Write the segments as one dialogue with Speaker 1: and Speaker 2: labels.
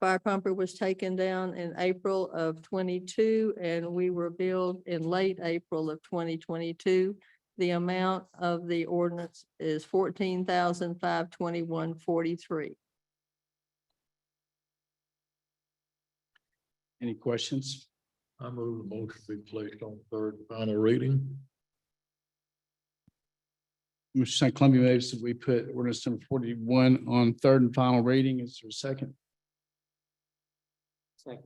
Speaker 1: fire pumper was taken down in April of twenty-two and we were billed in late April of twenty twenty-two. The amount of the ordinance is fourteen thousand five twenty-one forty-three.
Speaker 2: Any questions?
Speaker 3: I move the motion be placed on third and final reading.
Speaker 2: Mr. St. Columbia moves that we put ordinance number forty-one on third and final reading. Is there a second?
Speaker 4: Second.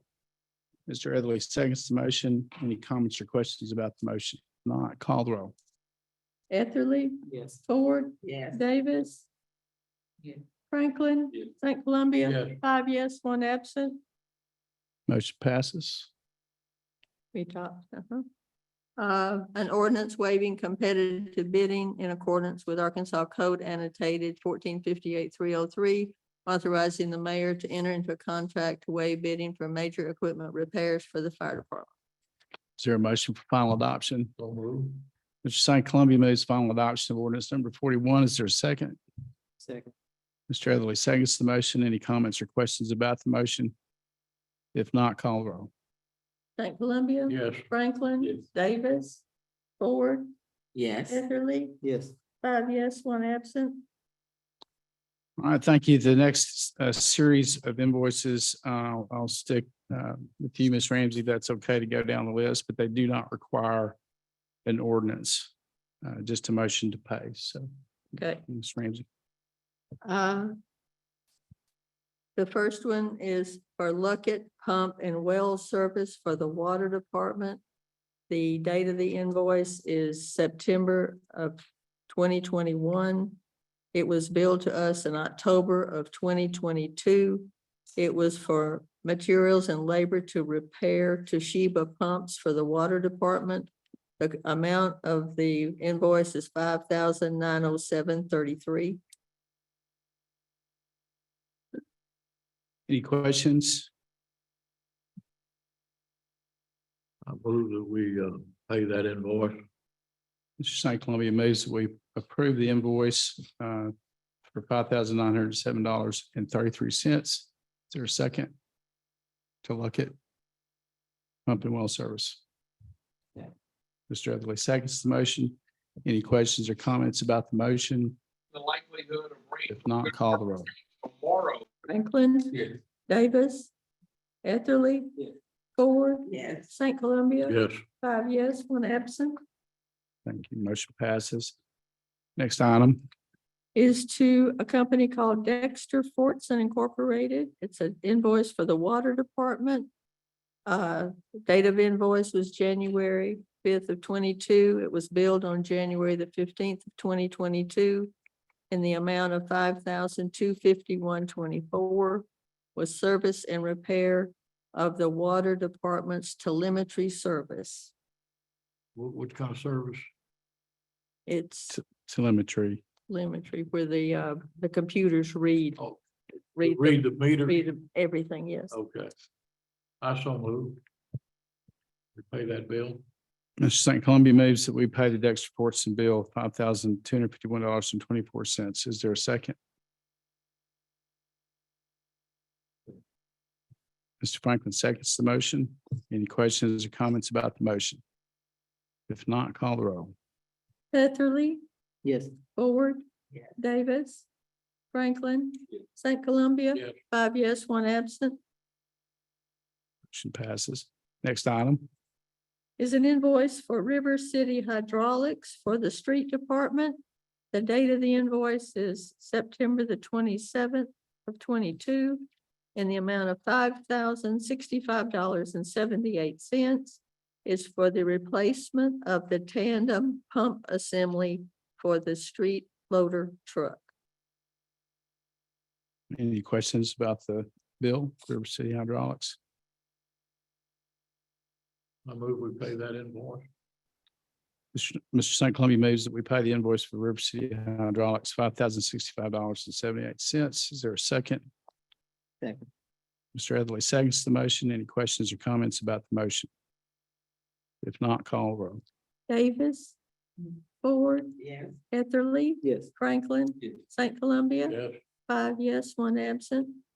Speaker 2: Mr. Etherly seconds the motion. Any comments or questions about the motion? Not call the roll.
Speaker 1: Etherly,
Speaker 4: Yes.
Speaker 1: Ford,
Speaker 4: Yes.
Speaker 1: Davis.
Speaker 4: Yeah.
Speaker 1: Franklin,
Speaker 3: Yeah.
Speaker 1: St. Columbia,
Speaker 3: Yes.
Speaker 1: five yes, one absent.
Speaker 2: Motion passes.
Speaker 1: We talked, uh-huh. Uh, an ordinance waiving competitive bidding in accordance with Arkansas Code annotated fourteen fifty-eight three oh three, authorizing the mayor to enter into a contract to waive bidding for major equipment repairs for the fire department.
Speaker 2: Is there a motion for final adoption?
Speaker 3: So move.
Speaker 2: Mr. St. Columbia moves final adoption of ordinance number forty-one. Is there a second?
Speaker 4: Second.
Speaker 2: Mr. Etherly seconds the motion. Any comments or questions about the motion? If not, call the roll.
Speaker 1: St. Columbia.
Speaker 3: Yes.
Speaker 1: Franklin.
Speaker 3: Yes.
Speaker 1: Davis. Ford.
Speaker 4: Yes.
Speaker 1: Etherly.
Speaker 4: Yes.
Speaker 1: Five yes, one absent.
Speaker 2: All right, thank you. The next uh, series of invoices, uh, I'll stick uh, with you, Ms. Ramsey. That's okay to go down the list, but they do not require an ordinance, uh, just a motion to pay. So,
Speaker 1: Okay.
Speaker 2: Ms. Ramsey.
Speaker 1: Uh, The first one is for Luckett Pump and Well Service for the Water Department. The date of the invoice is September of twenty twenty-one. It was billed to us in October of twenty twenty-two. It was for materials and labor to repair Toshiba pumps for the Water Department. The amount of the invoice is five thousand nine hundred seven thirty-three.
Speaker 2: Any questions?
Speaker 3: I move that we uh pay that invoice.
Speaker 2: Mr. St. Columbia moves that we approve the invoice uh, for five thousand nine hundred seven dollars and thirty-three cents. Is there a second? To look at pump and well service.
Speaker 4: Yeah.
Speaker 2: Mr. Etherly seconds the motion. Any questions or comments about the motion?
Speaker 5: the likelihood of rain.
Speaker 2: If not, call the roll.
Speaker 5: Tomorrow.
Speaker 1: Franklin.
Speaker 5: Yes.
Speaker 1: Davis. Etherly.
Speaker 4: Yeah.
Speaker 1: Ford.
Speaker 4: Yes.
Speaker 1: St. Columbia.
Speaker 3: Yes.
Speaker 1: Five yes, one absent.
Speaker 2: Thank you. Motion passes. Next item.
Speaker 1: Is to a company called Dexter Fortson Incorporated. It's an invoice for the water department. Uh, date of invoice was January fifth of twenty-two. It was billed on January the fifteenth of twenty twenty-two. In the amount of five thousand two fifty-one twenty-four was service and repair of the water department's telemetry service.
Speaker 3: What what kind of service?
Speaker 1: It's
Speaker 2: Telemetry.
Speaker 1: telemetry where the, uh, the computers read.
Speaker 3: Oh,
Speaker 1: Read the-
Speaker 3: Read the meter.
Speaker 1: read everything, yes.
Speaker 3: Okay. I so move. We pay that bill.
Speaker 2: Mr. St. Columbia moves that we pay the Dexter Fortson bill five thousand two hundred fifty-one dollars and twenty-four cents. Is there a second? Mr. Franklin seconds the motion. Any questions or comments about the motion? If not, call the roll.
Speaker 1: Etherly,
Speaker 4: Yes.
Speaker 1: Ford,
Speaker 4: Yes.
Speaker 1: Davis, Franklin,
Speaker 3: Yes.
Speaker 1: St. Columbia.
Speaker 3: Yes.
Speaker 1: Five yes, one absent,
Speaker 2: Motion passes. Next item.
Speaker 1: is an invoice for River City Hydraulics for the street department. The date of the invoice is September the twenty-seventh of twenty-two in the amount of five thousand sixty-five dollars and seventy-eight cents is for the replacement of the tandem pump assembly for the street loader truck.
Speaker 2: Any questions about the bill, River City Hydraulics?
Speaker 3: I move we pay that invoice.
Speaker 2: Mr. St. Columbia moves that we pay the invoice for River City Hydraulics, five thousand sixty-five dollars and seventy-eight cents. Is there a second?
Speaker 4: Second.
Speaker 2: Mr. Etherly seconds the motion. Any questions or comments about the motion? If not, call the roll.
Speaker 1: Davis, Ford,
Speaker 4: Yes.
Speaker 1: Etherly,
Speaker 4: Yes.
Speaker 1: Franklin,
Speaker 4: Yes.
Speaker 1: St. Columbia.
Speaker 3: Yes.
Speaker 1: Five yes, one absent.